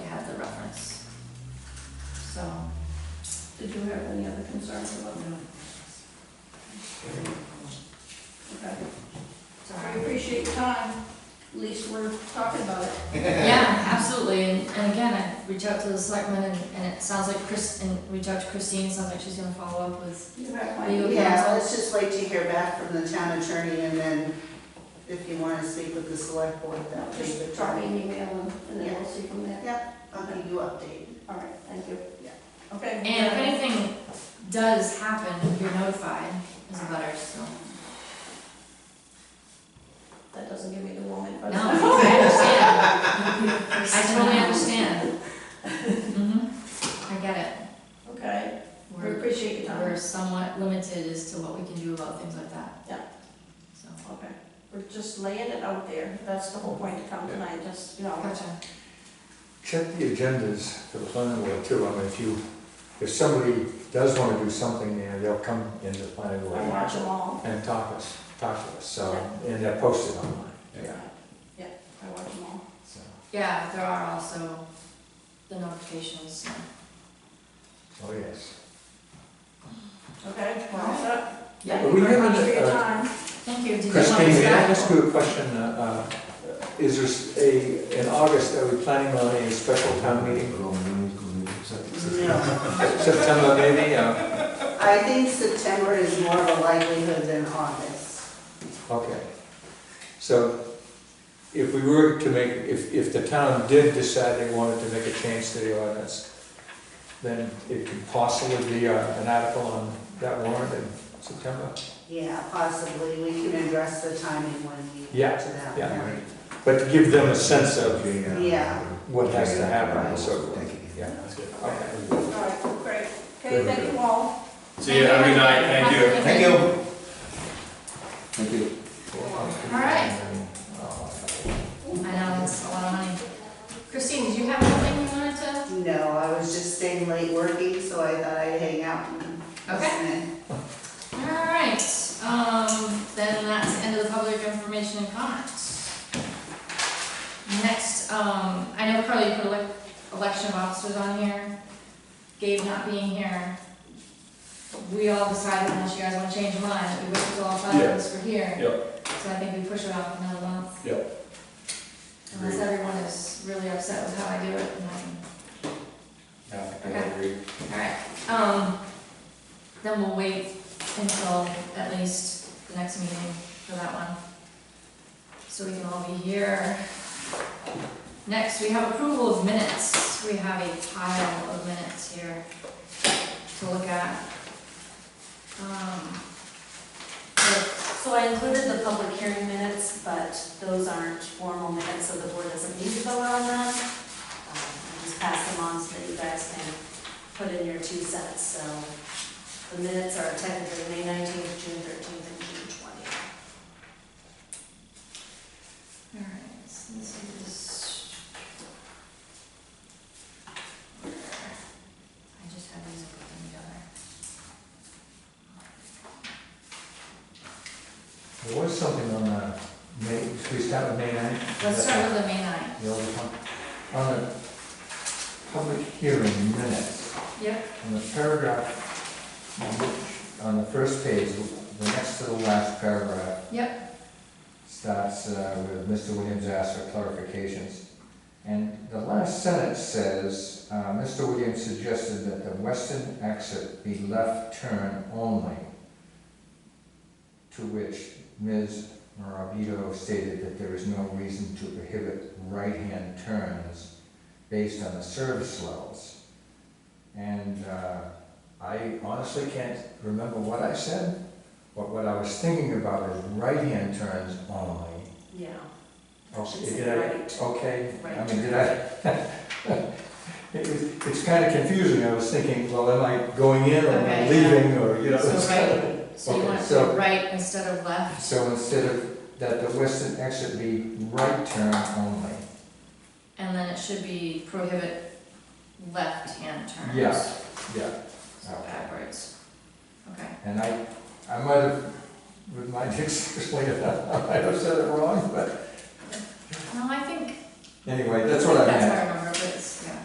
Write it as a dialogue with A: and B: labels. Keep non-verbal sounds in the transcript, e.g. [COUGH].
A: Did you have any other concerns about that? Okay. I [LAUGHS] appreciate your time, at least we're talking about it.
B: Yeah, absolutely, and, and again, I reach out to the selectmen, and, and it sounds like Chris, and reach out to Christine, sounds like she's gonna follow up with,
A: You have my
B: Legal
A: email.
C: Yeah, let's just wait to hear back from the town attorney and then if you want to speak with the select board, that would be the
A: Just drop me
C: time.
A: an email and- and then we'll see from there.
C: I'll give you updated.
A: All right, thank you. Okay.
B: and if anything does happen, you're notified as a butter, so.
A: That doesn't give me the moment, but.
B: No,
A: [LAUGHS]
B: I understand, I totally understand. Mhm, I get it,
A: Okay, we
B: we're,
A: appreciate your time.
B: we're somewhat limited as to what we can do about things like that.
A: Yeah.
B: So,
A: Okay, we're just laying it out there, that's the whole point to come tonight, just, you know,
B: gotcha,
D: Check the agendas for the planning board too, I mean, if you, if somebody does wanna do something there, they'll come into the planning
A: I
D: board
A: watch them all,
D: and talk us, talk to us, so, and they're posted online, yeah,
A: I watch them all.
D: so.
B: yeah, there are also the notifications, so.
D: Oh, yes.
A: Okay, well, what's up?
B: Yeah,
D: But we
A: Thank you very
D: haven't,
A: much for your
D: uh,
A: time.
B: thank you, did you want
D: Christine,
B: this
D: may I
B: back?
D: ask you a question? Uh, uh, Is there s- a, in August, are we planning on a special town meeting? [LAUGHS]
C: No,
D: September maybe, uh,
C: I think September is more of a likelihood than August.
D: okay. So if we were to make, if, if the town did decide they wanted to make a change to the ordinance, then it could possibly be uh, an article on that warrant in September?
C: Yeah, possibly, we can address the timing when we
D: Yeah,
C: get to that.
D: yeah. But to give them a sense of
C: Yeah.
D: what has to happen and so forth.
E: Thank you.
D: Yeah, okay.
A: All right, great. Okay, thank you all.
F: See you, have a good night, thank you.
E: Thank you. Thank you.
B: All right. I know, that's a lot of money. Christine, did you have anything you wanted to?
C: No, I was just staying late working, so I thought I'd hang out and
B: Okay.
C: listen in.
B: All right, um, then that's the end of the public information and comments. Next, um, I know Carly put elec- election of officers on here, Gabe not being here. We all decided, unless you guys wanna change your mind, that we wait till all five of us were here. So I think we push it off another month. Yep. Unless everyone is really upset with how I do it, and then.
E: Yeah, I
B: Okay.
E: agree.
B: Alright, um, then we'll wait until at least the next meeting for that one. So we can all be here. Next, we have approval of minutes. We have a pile of minutes here to look at. Um,
G: So I included the public hearing minutes, but those aren't formal minutes, so the board doesn't need to vote on them. Um, I Just pass them on so that you guys can put in your two cents, so the minutes are technically May nineteenth, June thirteenth, and June twentieth.
B: Alright, so this is. I just have these put them together.
D: There was something on the May, should we start with May ninth?
B: Let's start with the May ninth.
D: The other one, on the public hearing minutes,
B: Yep.
D: on the paragraph, which- on the first page, the next to the last paragraph
B: Yep,
D: starts uh, with Mr. Williams asked for clarifications. And the last sentence says, uh, Mr. Williams suggested that the western exit be left turn only. To which Ms. Morabito stated that there is no reason to prohibit right-hand turns based on the service levels. And uh, I honestly can't remember what I said, but what I was thinking about is right-hand turns only.
G: Yeah.
D: Okay,
G: Should
D: did
G: say
D: I-
G: right.
D: Okay, I
G: Right.
D: mean, did I? [LAUGHS] It was, it's kind of confusing, I was thinking, well, am I going in or am I
B: Okay,
D: leaving, or, you know,
B: So
D: it's kind of.
B: so you
D: Okay,
B: want to
D: so-
B: do right instead of left.
D: [LAUGHS] So instead of, that the western exit be right turn only.
B: And then it should be prohibit left-hand turns.
D: Yeah. Yeah,
B: So Backwards. Okay.
D: and I, I might have, with my [LAUGHS] dictionary, I might have said it wrong, but
B: No, I think
D: anyway, that's what I
B: that's
D: meant.
B: how I remember